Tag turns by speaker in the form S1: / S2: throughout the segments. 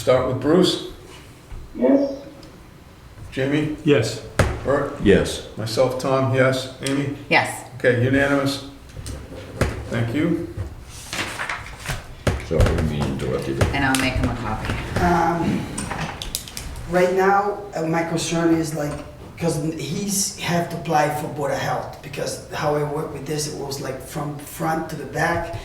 S1: Start with Bruce,
S2: Yes,
S1: Jamie,
S3: Yes.
S1: Bert,
S4: Yes.
S1: myself, Tom, yes, Amy?
S5: Yes.
S1: Okay, unanimous. Thank you.
S4: Sorry, we interrupted.
S5: And I'll make him a copy.
S6: Right now, uh, my concern is like, because he's have to apply for Board of Health, because how I work with this, it was like from front to the back.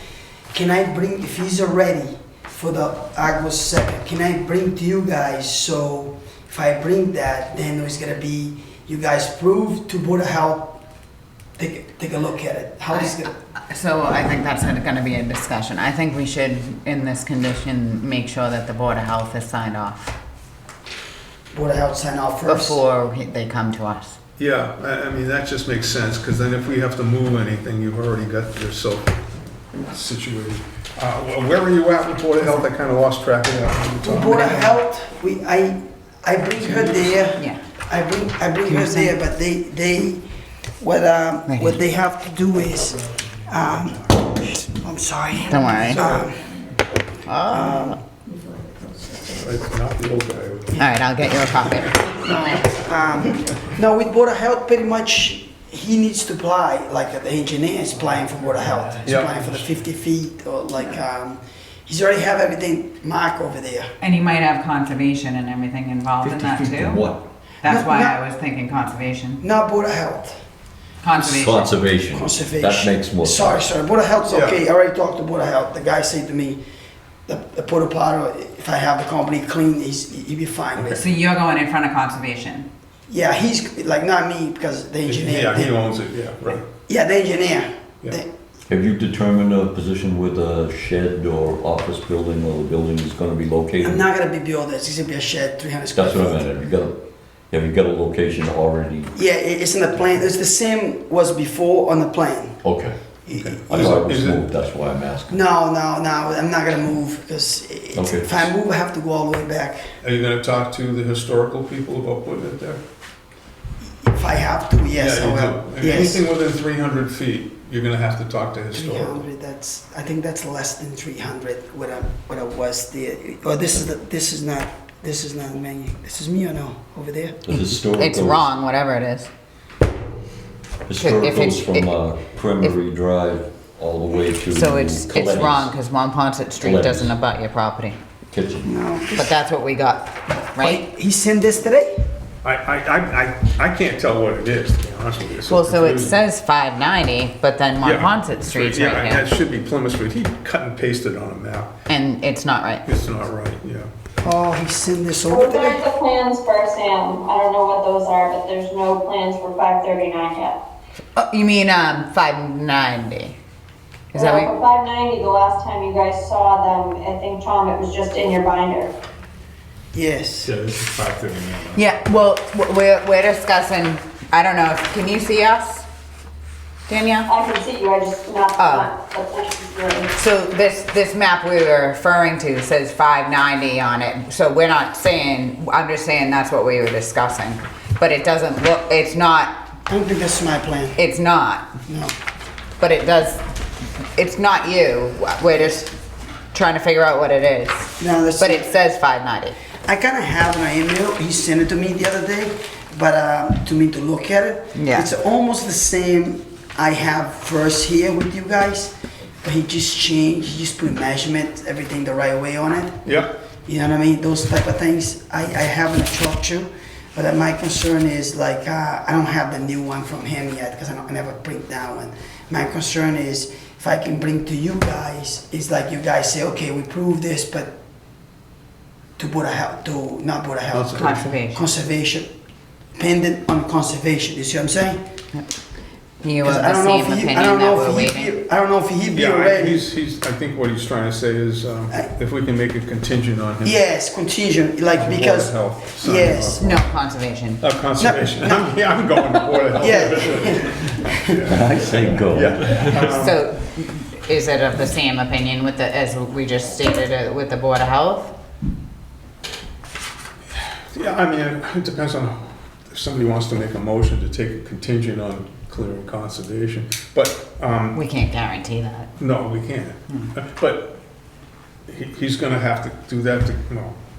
S6: Can I bring, if he's already for the August second, can I bring to you guys, so if I bring that, then it's gonna be, you guys prove to Board of Health, take, take a look at it, how it's gonna,
S5: So I think that's gonna be a discussion. I think we should, in this condition, make sure that the Board of Health is signed off
S6: Board of Health sign off first.
S5: before he- they come to us.
S1: Yeah, I, I mean, that just makes sense, because then if we have to move anything, you've already got yourself situated. Uh, wh- where were you at with Board of Health? I kind of lost track of that.
S6: With Board of Health, we, I, I bring her there.
S5: Yeah.
S6: I bring, I bring
S5: You
S6: her there,
S5: think-
S6: but they, they, what, um,
S5: Right
S6: what
S5: here.
S6: they have to do is, um, I'm sorry.
S5: Don't worry. All
S6: Um,
S5: oh,
S1: It's Not the old guy.
S5: right, I'll get you a copy.
S6: No, with Board of Health, pretty much, he needs to apply, like the engineer is applying for Board of Health. He's
S1: Yeah.
S6: applying for the fifty feet, or like, um, he's already have everything marked over there.
S7: And you might have conservation and everything involved in that too?
S4: What?
S7: That's why
S6: No, no.
S7: I was thinking conservation.
S6: Not Board of Health,
S7: Conservation.
S4: Conservation.
S6: conservation.
S4: That makes more. sense.
S6: Sorry, sorry, Board of Health's
S1: Yeah.
S6: okay, I already talked to Board of Health, the guy said to me, the, the porta potty, if I have the company clean, he's, he'd be fine with it.
S7: So you're going in front of conservation.
S6: Yeah, he's like not me because the engineer.
S1: Yeah, he owns it, yeah, right.
S6: Yeah, the engineer.
S1: Yeah.
S6: The-
S4: Have you determined a position where the shed or office building or the building is gonna be
S6: I'm
S4: located?
S6: not gonna be built. It's gonna be a shed, 300 square
S4: That's what I
S6: feet.
S4: meant, have you got, a- have you got a location already?
S6: Yeah, it, it's in the plan. It's the same was before on the plan.
S4: Okay. I
S1: Is it-
S4: thought it was
S1: is it-
S4: moved, that's why I'm asking.
S6: No, no, no. I'm not gonna move because
S4: Okay.
S6: if I move, I have to go all the way back.
S1: Are you gonna talk to the historical people about putting it there?
S6: If I have to, yes,
S1: Yeah, you
S6: I
S1: do.
S6: will.
S1: If
S6: Yes.
S1: Anything within three hundred feet, you're gonna have to talk to historical.
S6: 300. That's. I think that's less than 300. What I what I was there. Or this is the, this is not this is not menu. This is me or no over there.
S4: The historical.
S5: It's wrong, whatever it is. If it's-
S4: Historical's
S5: it-
S4: from uh, Cremery Drive all the way to.
S5: So it's, it's
S4: Colette's
S5: wrong, because Monpont Street
S4: Colette's.
S5: doesn't abut your property.
S4: Kitchen.
S6: No.
S5: But that's what we got, right?
S6: He sent this today.
S1: I, I, I, I I can't tell what it is, to be honest with you. It's
S5: Well, so it
S1: confusing.
S5: says 590, but then
S1: Yeah.
S5: Monpont Street's
S1: Yeah,
S5: right
S1: That
S5: here.
S1: should be Plymouth Street. He cut and pasted on a map.
S5: And it's not right.
S1: It's not right, yeah.
S6: Oh, he sent this over
S8: We're looking
S6: today.
S8: at the plans for Sam. I don't know what those are, but there's no plans for five thirty-nine yet.
S5: Oh, you mean um, 590? Is
S8: Now,
S5: that what?
S8: Uh, For five ninety, the last time you guys saw them, I think, Tom, it was just in your binder.
S6: Yes.
S3: Yeah, this is five thirty-nine.
S5: Yeah, well, w- we're, we're discussing, I don't know, if- can you see us? Danielle?
S8: I can see you, I just not,
S5: Oh.
S8: not, the plans really.
S5: So this, this map we were referring to says 590 on it, so we're not saying, I'm just saying that's what we were discussing. But it doesn't look, it's not,
S6: I don't think that's my plan.
S5: it's not,
S6: No.
S5: but it does, it's not you, we're just trying to figure out what it is.
S6: No, that's-
S5: But it says 590.
S6: I kind of have an email. He sent it to me the other day, but uh, to me to look at it.
S5: Yeah.
S6: It's almost the same I have first here with you guys, but he just changed. He just put measurement, everything the right way on it.
S1: Yep.
S6: You know what I mean? Those type of things. I, I have not talked to, but uh, my concern is like uh, I don't have the new one from him yet because I, don't- I never print that one. My concern is if I can bring to you guys, it's like you guys say, okay, we prove this, but to Buddha Health, to not Buddha Health, to
S7: Conservation.
S6: conservation, pendant on conservation. You see what I'm saying?
S5: You
S6: Because
S5: have
S6: I
S5: the
S6: don't know
S5: same
S6: if he,
S5: opinion
S6: I don't
S5: that
S6: know
S5: we're
S6: if
S5: waiting.
S6: he, I don't know if he be
S1: Yeah, I-
S6: ready.
S1: he's, he's, I think what he's trying to say is, um,
S6: I-
S1: if we can make a contingent on him.
S6: Yes, contingent, like
S1: Board of
S6: because
S1: Health, sign
S6: yes.
S5: No conservation.
S1: Uh, conservation. I'm, yeah, I'm going to Board of Health.
S6: Yeah.
S4: I say go.
S1: Yeah.
S6: Oh.
S5: So is it of the same opinion with the, as we just stated, uh, with the Board of Health?
S1: Yeah, I mean, it depends on if somebody wants to make a motion to take a contingent on clearing conservation, but, um,
S5: We can't guarantee that.
S1: no, we can't. But he, he's gonna have to do that to, no,